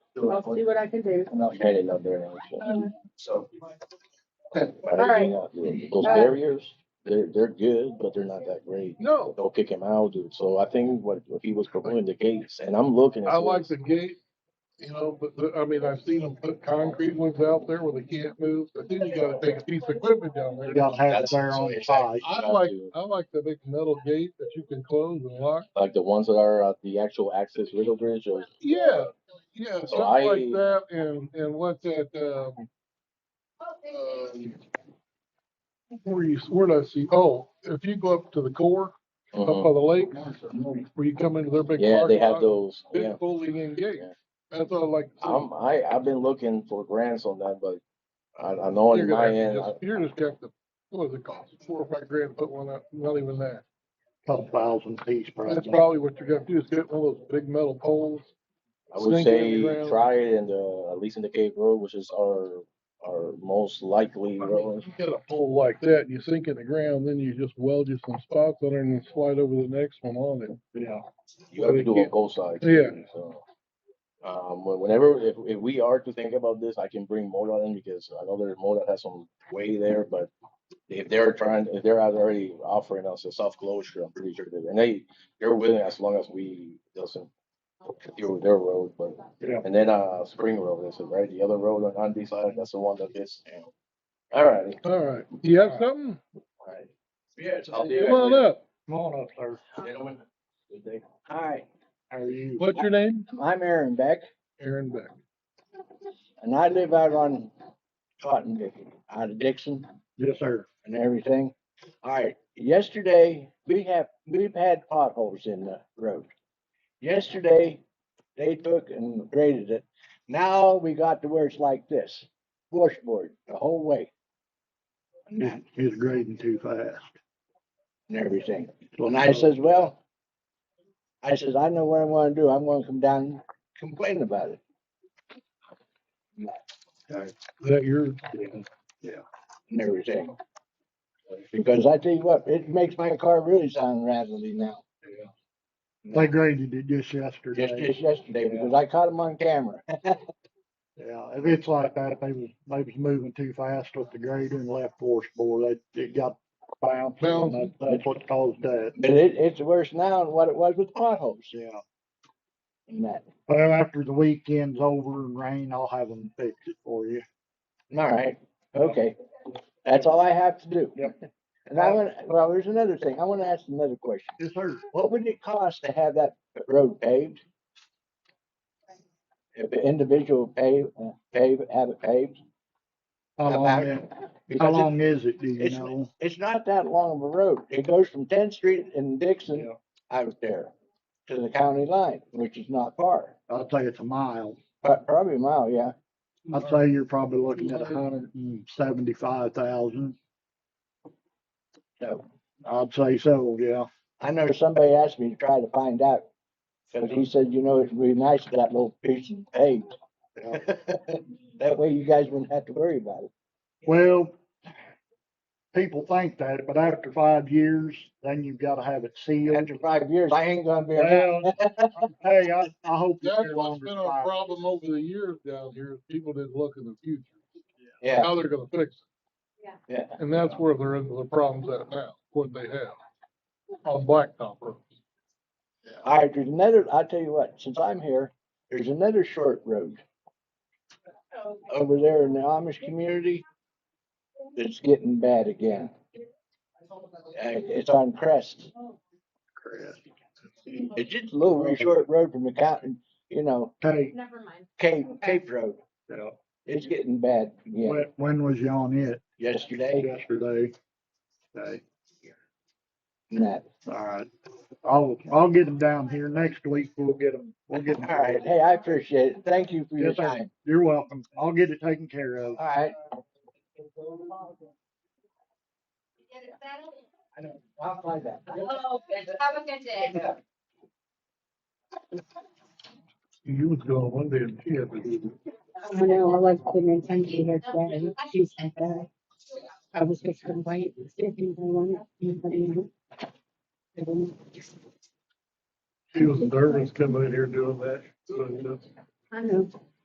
I'll see what I can do. I'm not headed up there. now, So. so. But All right. you know, Those Uh, barriers, they're, they're good, but they're not that great. No, They'll kick him out, dude. So I think what, if he was proposing the gates, and I'm looking. at I like this, the gate, you know, but, the- I mean, I've seen them put concrete ones out there where they can't move, but then you gotta take a piece of equipment down there. You don't have it there on the side. I like, I like the big metal gate that you can close and lock. Like the ones that are at the actual access riddle bridge or, Yeah, yeah, something I- like that, and, and what's that, um, um, where you, where did I see, oh, if you go up to the core, up by Mhm. the lake, where you come into their big yeah, they parking have lot, those, yeah. big folding in gate. Yeah. That's all I like. to see. I'm, I, I've been looking for grants on that, but I, I know You're on gonna my have to end, just- You're just gonna have to, what does it cost, four or five grand to put one up, not even that. Couple thousand piece That's probably. probably what you're gonna do, is get one of those big metal poles. I would Snake in say the ground. try it in the, at least in the Cape Road, which is our, our most likely I mean, road. you Get a pole like that, you sink in the ground, then you just weld you some spots on it and then slide over the next one on it. Yeah. You have to they do on can't- both sides. Yeah. So, um, whe- whenever, if, if we are to think about this, I can bring MoDOT in because I know there's MoDOT has some way there, but if they're trying, if they're already offering us a soft closure, I'm pretty sure that, and they, they're willing as long as we doesn't do their road, but, Yeah. and then, uh, Spring Road is it, right? The other road on Andy's side, that's the one that is, all right. All right, you have something? Yeah. it's- I'll do Come on up, Come on up, sir. Gentlemen. good day. Hi, How are you? what's your name? I'm Aaron Beck, Aaron Beck. and I live out on Cotton, Dick- out of Dixon Yes, sir. and everything. All right, yesterday, we have, we've had potholes in the road. Yesterday, they took and graded it. Now we got to where it's like this, washboard the whole way He's, he's grading too fast. and everything. And I says, well, I says, I know what I'm gonna do. I'm gonna come down and complain about it. Is that your, and everything. Because I tell you what, it makes my car really sound rattly now. They graded it just Just, yesterday. just yesterday, because I caught him on camera. Yeah, if it's like that, they was, they was moving too fast with the grader and left washboard. They, it got bounced. and that- That's what caused that. But it, it's worse now than what it was with potholes Yeah. and that. Well, after the weekend's over and rain, I'll have them fix it for you. All right, okay. That's all I have to do. Yep. And I want, well, there's another thing. I want to ask another question. Yes, sir. What would it cost to have that road paved? If an individual pave, uh, pave, have it paved? How long, About- it- how Because it- long is it, do you it's- know? it's not that long of a road. It goes from 10th Street and Dixon Yeah. out there to the county line, which is not far, I'd say it's a mile. but probably a mile, yeah. I'd say you're probably looking at a hundred and seventy-five thousand. So I'd say so, yeah. I know somebody asked me to try to find out, because he said, you know, it'd be nice if that little piece of paved. That way you guys wouldn't have to worry about it. Well, people think that, but after five years, then you've gotta have it sealed. After five years, I ain't gonna be around. Well, hey, I, I hope. it's that's here what's longer been than our five. problem over the years down here, is people didn't look in the future, Yeah, how they're gonna fix it. yeah. And that's where they're into the problems at now, what they have on blacktop roads. All right, there's another, I'll tell you what, since I'm here, there's another short road. Over there in the Amish community, it's getting bad again. Uh, It's on Crest. Crest. It's just a little short road from the county, you know, Okay, Never mind. Cape, Cape Road. yeah. It's getting bad again. when, when was you on it? Yesterday, Yesterday. Okay, and that. all right. I'll, I'll get them down here next week. We'll get them, we'll get them. All right, hey, I appreciate it. Thank you for your Yes, sir. time. You're welcome. I'll get it taken care of. All right. Get it settled? I know. I'll find that. Have a good day. You was going one day and she had to do this. I know, I was couldn't intend to be here today, she said that, I was just gonna wait, and see if anybody wanted, anybody else. I didn't- She was nervous coming in here doing that. so, you know. I know,